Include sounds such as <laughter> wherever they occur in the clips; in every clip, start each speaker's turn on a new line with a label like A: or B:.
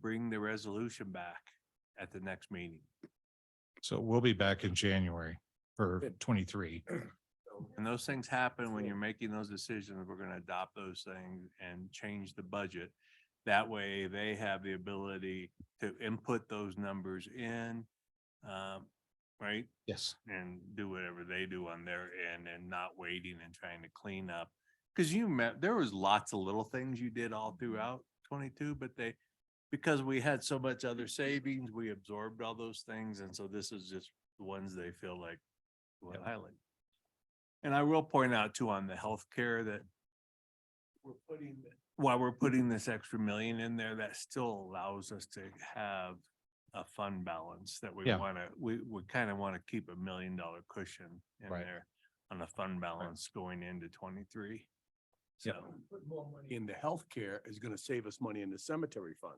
A: bring the resolution back at the next meeting.
B: So we'll be back in January for
C: Good. <clears throat>
B: twenty-three.
A: And those things happen when you're making those decisions, we're gonna adopt those things and change the budget. That way they have the ability to input those numbers in, um, right?
B: Yes.
A: and do whatever they do on their end and not waiting and trying to clean up. Cause you met, there was lots of little things you did
B: Mm-hmm.
A: all throughout twenty-two, but they, because we had so much other savings, we absorbed all those things. And so this is just the ones they feel like we wanna
B: Yep.
A: highlight. And I will point out too on the healthcare that we're putting, while
B: Mm-hmm.
A: we're putting this extra million in there, that still allows us to have a fund balance that we
B: Yeah.
A: want to, we, we kind of want to keep a million dollar cushion in
B: Right.
A: there on the fund balance going into twenty-three. So,
B: Yep.
C: Put more money Into healthcare is gonna save us money in the cemetery fund,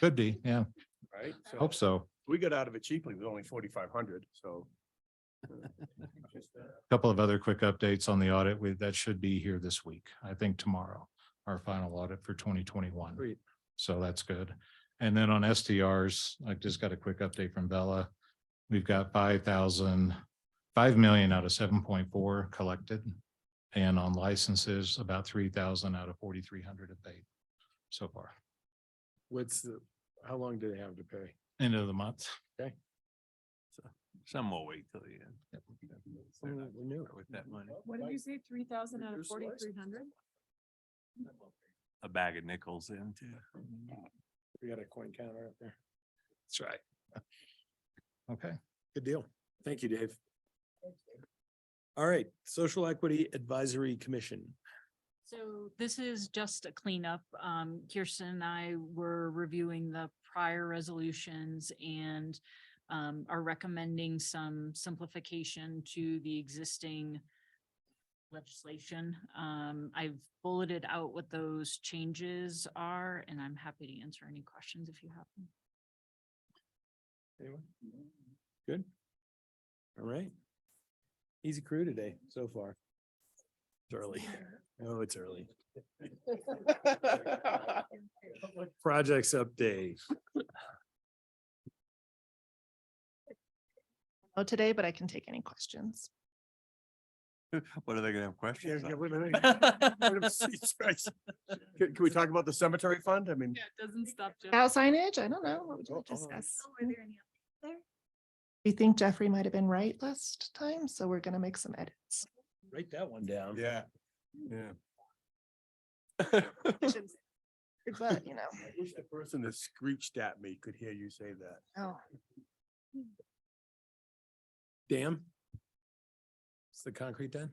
B: Could be, yeah.
C: right?
B: Hope so.
C: We got out of it cheaply with only forty-five hundred, so. uh, <laughs> just, uh,
B: Couple of other quick updates on the audit. We, that should be here this week, I think tomorrow, our final audit for twenty twenty-one.
C: Great.
B: So that's good. And then on STRs, I just got a quick update from Bella. We've got five thousand, five million out of seven point four collected. And on licenses, about three thousand out of forty-three hundred have paid so far.
D: What's the, how long do they have to pay?
B: End of the month.
A: some will wait till the end. They're not
D: We knew.
A: gonna start With that money,
E: What did you say, three thousand out of
C: Reduce the license.
E: forty-three hundred?
A: a bag of nickels in too.
D: We got a coin counter up there.
B: That's right. Okay.
D: Good deal. Thank you, Dave. All right, Social Equity Advisory Commission.
F: So this is just a cleanup. Um, Kirsten and I were reviewing the prior resolutions and um, are recommending some simplification to the existing legislation. Um, I've bulleted out what those changes are, and I'm happy to answer any questions if you have them.
D: Anyone? Good. All right. Easy crew today so far. It's early. Oh, it's early. Projects update.
G: Oh, today, but I can take any questions.
A: What are they gonna have questions on?
C: <laughs> Can, can we talk about the cemetery fund? I mean,
F: it doesn't stop.
G: Cow signage, I don't know, what would you
C: Oh, oh.
G: discuss? We think Jeffrey might have been right last time, so we're gonna make some edits.
D: Write that one down.
C: yeah, yeah. <laughs>
G: But, you know,
C: I wish the person that screeched at me could hear you say that.
G: oh,
D: Dam? It's the concrete dam?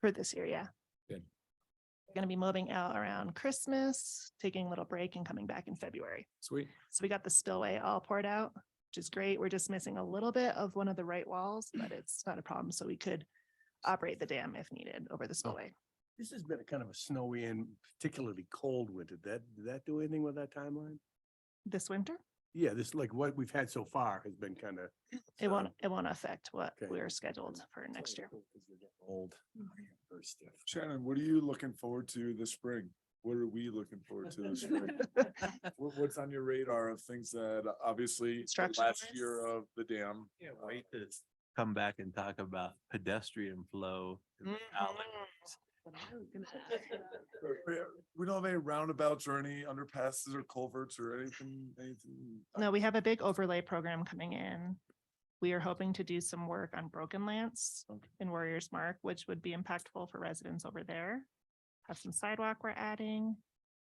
G: for this year, yeah.
D: Good.
G: Gonna be moving out around Christmas, taking a little break and coming back in February.
D: Sweet.
G: So we got the spillway all poured out, which is great. We're just missing a little bit of one of the right walls, but it's not a problem, so we could operate the dam if needed over the spillway.
C: This has been a kind of a snowy and particularly cold winter. Did that, did that do anything with that timeline?
G: This winter,
C: Yeah, this, like what we've had so far has been kind of.
G: it won't, it won't affect what
C: Okay.
G: we're scheduled for next year.
C: Old.
H: Shannon, what are you looking forward to this spring? What are we looking forward to this spring? What, what's on your radar of things that obviously the
G: Construction
H: last year
G: risks.
H: of the dam?
A: Yeah, wait to come back and talk about pedestrian flow. in the alley.
H: We- We don't have any roundabouts or any underpasses or culverts or anything, anything.
G: No, we have a big overlay program coming in. We are hoping to do some work on Broken Lance
H: Okay.
G: in Warriors Mark, which would be impactful for residents over there. Have some sidewalk we're adding.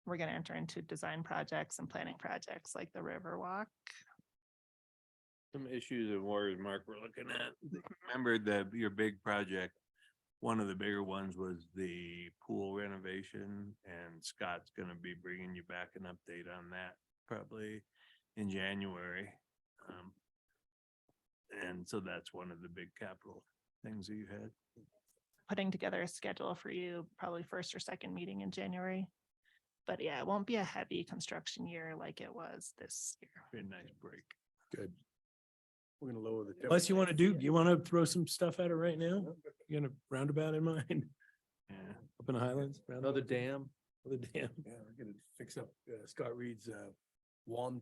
G: We're gonna enter into design projects and planning projects like the River Walk.
A: Some issues in Warriors Mark we're looking at. Remember the, your big project, one of the bigger ones was the pool renovation and Scott's gonna be bringing you back an update on that probably in January. Um, And so that's one of the big capital things that you had.
G: Putting together a schedule for you, probably first or second meeting in January. But yeah, it won't be a heavy construction year like it was this year.
A: Very nice break.
D: Good.
C: We're gonna lower the.
D: Unless you want to do,
C: temperature.
D: you want to throw some stuff at it right now? You got a roundabout in mind,
A: Yeah.
D: up in the Highlands? Another dam. Another dam.
C: Yeah, we're gonna fix up uh, Scott Reed's uh one